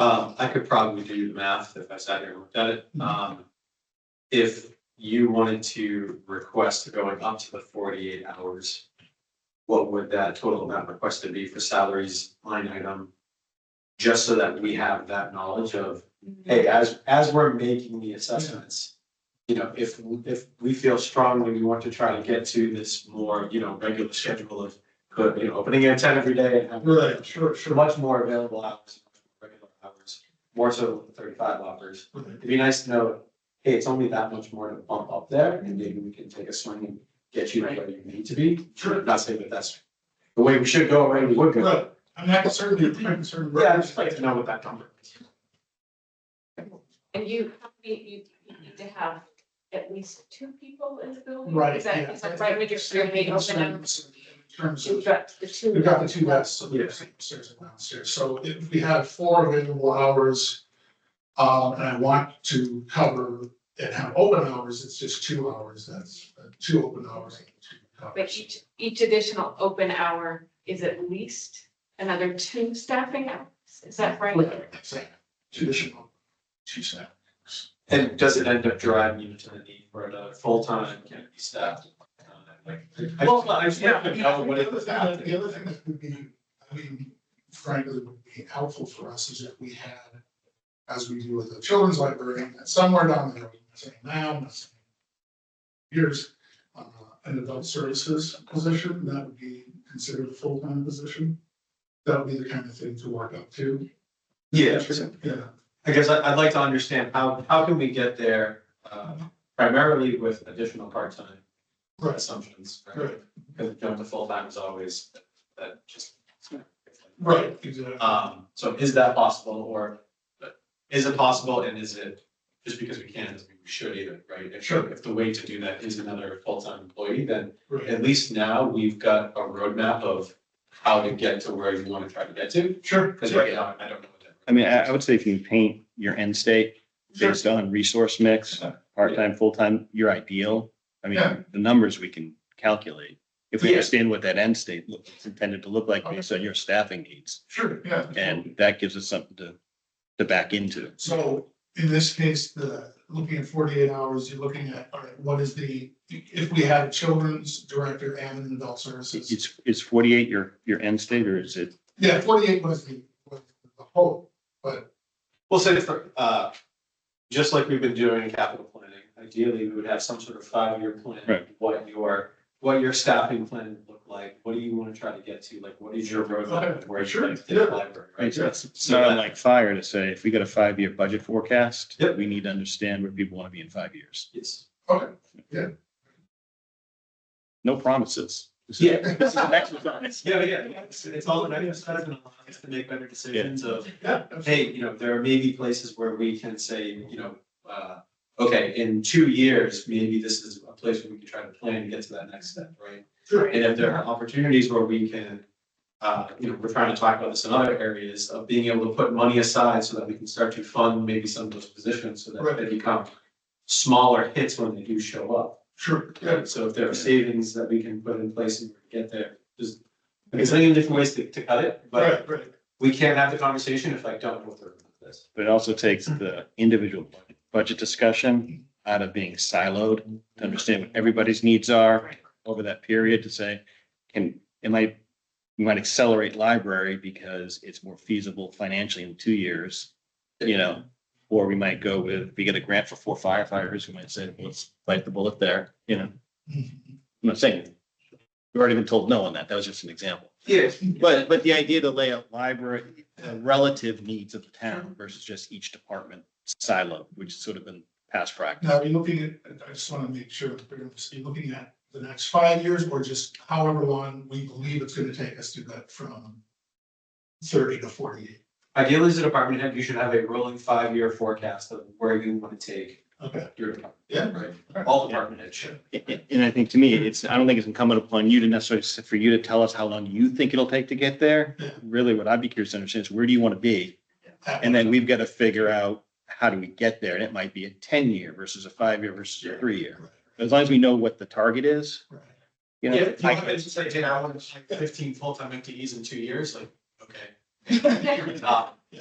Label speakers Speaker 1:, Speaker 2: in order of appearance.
Speaker 1: Um, I could probably do the math if I sat here and looked at it. Um, if you wanted to request going up to the forty-eight hours, what would that total amount requested be for salaries line item? Just so that we have that knowledge of, hey, as, as we're making the assessments, you know, if, if we feel strongly we want to try to get to this more, you know, regular schedule of, you know, opening at ten every day and having
Speaker 2: Right, sure,
Speaker 1: for
Speaker 2: sure.
Speaker 1: much more available hours, regular hours, more so than the thirty-five hours.
Speaker 2: Right.
Speaker 1: It'd be nice to know, hey, it's only that much more to bump up there, and maybe we can take a swing and get you to where you need to be.
Speaker 2: Sure.
Speaker 1: Not saying that that's the way we should go, or we would go.
Speaker 2: Right, I mean, I can certainly, I can certainly.
Speaker 1: Yeah, I'd just like to know what that number is.
Speaker 3: And you, you, you you need to have at least two people in the building?
Speaker 2: Right,
Speaker 3: Is that,
Speaker 2: yeah.
Speaker 3: is that right when you're starting open?
Speaker 2: In terms
Speaker 3: You've
Speaker 2: of,
Speaker 3: got the two.
Speaker 2: we've got the two desks, so
Speaker 1: Yeah.
Speaker 2: there's upstairs and downstairs, so if we have four available hours. Um, and I want to cover and have open hours, it's just two hours, that's uh, two open hours. and two covers.
Speaker 3: But each, each additional open hour is at least another two staffing hours, is that right?
Speaker 2: Right, that's it. Traditional, two staff.
Speaker 1: And does it end up driving you to the need for another full-time, can it be staffed? Uh, like, I just, I just want to know what
Speaker 2: The
Speaker 1: it
Speaker 2: other
Speaker 1: was.
Speaker 2: thing that- the other thing that would be, I mean, frankly, would be helpful for us is if we had, as we do with the children's library, that somewhere down there, I'm not saying now, I'm not saying years, uh, an adult services position, that would be considered a full-time position. That would be the kind of thing to work up to.
Speaker 1: Yeah,
Speaker 2: Yeah,
Speaker 1: I guess I, I'd like to understand how, how can we get there, uh, primarily with additional part-time
Speaker 2: right,
Speaker 1: assumptions, right?
Speaker 2: right,
Speaker 1: Because jump to full-time is always, that just.
Speaker 2: right, exactly.
Speaker 1: Um, so is that possible, or uh, is it possible, and is it, just because we can, doesn't mean we should either, right? If,
Speaker 2: Sure.
Speaker 1: if the way to do that is another full-time employee, then
Speaker 2: right.
Speaker 1: at least now we've got a roadmap of how to get to where you want to try to get to,
Speaker 2: Sure.
Speaker 1: because right now, I don't know. what that-
Speaker 4: I mean, I, I would say if you paint your end state
Speaker 2: Sure.
Speaker 4: based on resource mix, part-time, full-time, your ideal. I
Speaker 2: Yeah.
Speaker 4: mean, the numbers we can calculate. If we
Speaker 1: Yeah.
Speaker 4: understand what that end state look- it's intended to look like based on your staffing needs,
Speaker 2: Sure, yeah.
Speaker 4: and that gives us something to, to back into.
Speaker 2: So in this case, the, looking at forty-eight hours, you're looking at, all right, what is the, if we had a children's director and an adult services?
Speaker 4: It's, is forty-eight your, your end state, or is it,
Speaker 2: Yeah, forty-eight was the, was the whole,
Speaker 1: Well, say for, uh, just like we've been doing in capital planning, ideally, we would have some sort of five-year plan.
Speaker 4: Right.
Speaker 1: What your, what your staffing plan would look like, what do you want to try to get to, like, what is your roadmap,
Speaker 2: Okay,
Speaker 1: where
Speaker 2: sure,
Speaker 1: you're to the
Speaker 2: yeah.
Speaker 1: library, right?
Speaker 4: it's it's
Speaker 1: So
Speaker 4: not
Speaker 1: that-
Speaker 4: unlike fire to say, if we got a five-year budget forecast,
Speaker 1: Yep.
Speaker 4: we need to understand where people want to be in five years.
Speaker 1: Yes.
Speaker 2: okay,
Speaker 4: No promises. This is-
Speaker 1: Yeah.
Speaker 4: This is an exercise.
Speaker 1: Yeah, yeah, it's, it's all an exercise and allows us to make better decisions of,
Speaker 2: yeah.
Speaker 1: hey, you know, there may be places where we can say, you know, uh, okay, in two years, maybe this is a place where we can try to plan to get to that next step, right?
Speaker 2: Sure,
Speaker 1: And if there are opportunities where we can, uh, you know, we're trying to talk about this in other areas of being able to put money aside so that we can start to fund maybe some of those positions so that
Speaker 2: Right.
Speaker 1: they become smaller hits when they do show up.
Speaker 2: sure, yeah,
Speaker 1: Right? So if there are savings that we can put in place and get there, just, I mean, there's many different ways to, to cut it, but
Speaker 2: right, right,
Speaker 1: we can't have the conversation if I don't know what they're doing with this.
Speaker 4: But it also takes the individual budget discussion out of being siloed to understand what everybody's needs are over that period to say, can, it might, we might accelerate library because it's more feasible financially in two years, you know? Or we might go with, we get a grant for four firefighters, we might say, let's bite the bullet there, you know? I'm
Speaker 2: Mm-hmm.
Speaker 4: not saying, we've already been told no on that. That was just an example.
Speaker 1: Yeah.
Speaker 4: But, but the idea to lay out library, the relative needs of the town versus just each department silo, which has sort of been past practice.
Speaker 2: Now, you're looking at, I just wanna make sure, that we're you're looking at the next five years or just however long we believe it's gonna take us to get from thirty to forty-eight,
Speaker 1: Ideally, as a department head, you should have a rolling five-year forecast of where you want to take
Speaker 2: okay,
Speaker 1: your department,
Speaker 2: yeah,
Speaker 1: right? All department heads should.
Speaker 4: And and I think to me, it's, I don't think it's incumbent upon you to necessarily, s- for you to tell us how long you think it'll take to get there.
Speaker 2: Yeah.
Speaker 4: Really, what I'd be curious to understand is where do you want to be? And then we've got to figure out how do we get there? And it might be a ten year versus a five year versus a
Speaker 1: Yeah.
Speaker 4: three year. As long as we know what the target is,
Speaker 2: Right.
Speaker 4: you know.
Speaker 1: Yeah, if you
Speaker 4: I-
Speaker 1: want me to say, hey, I want like fifteen full-time MTEs in two years, like, okay.
Speaker 3: Yeah.
Speaker 1: Uh,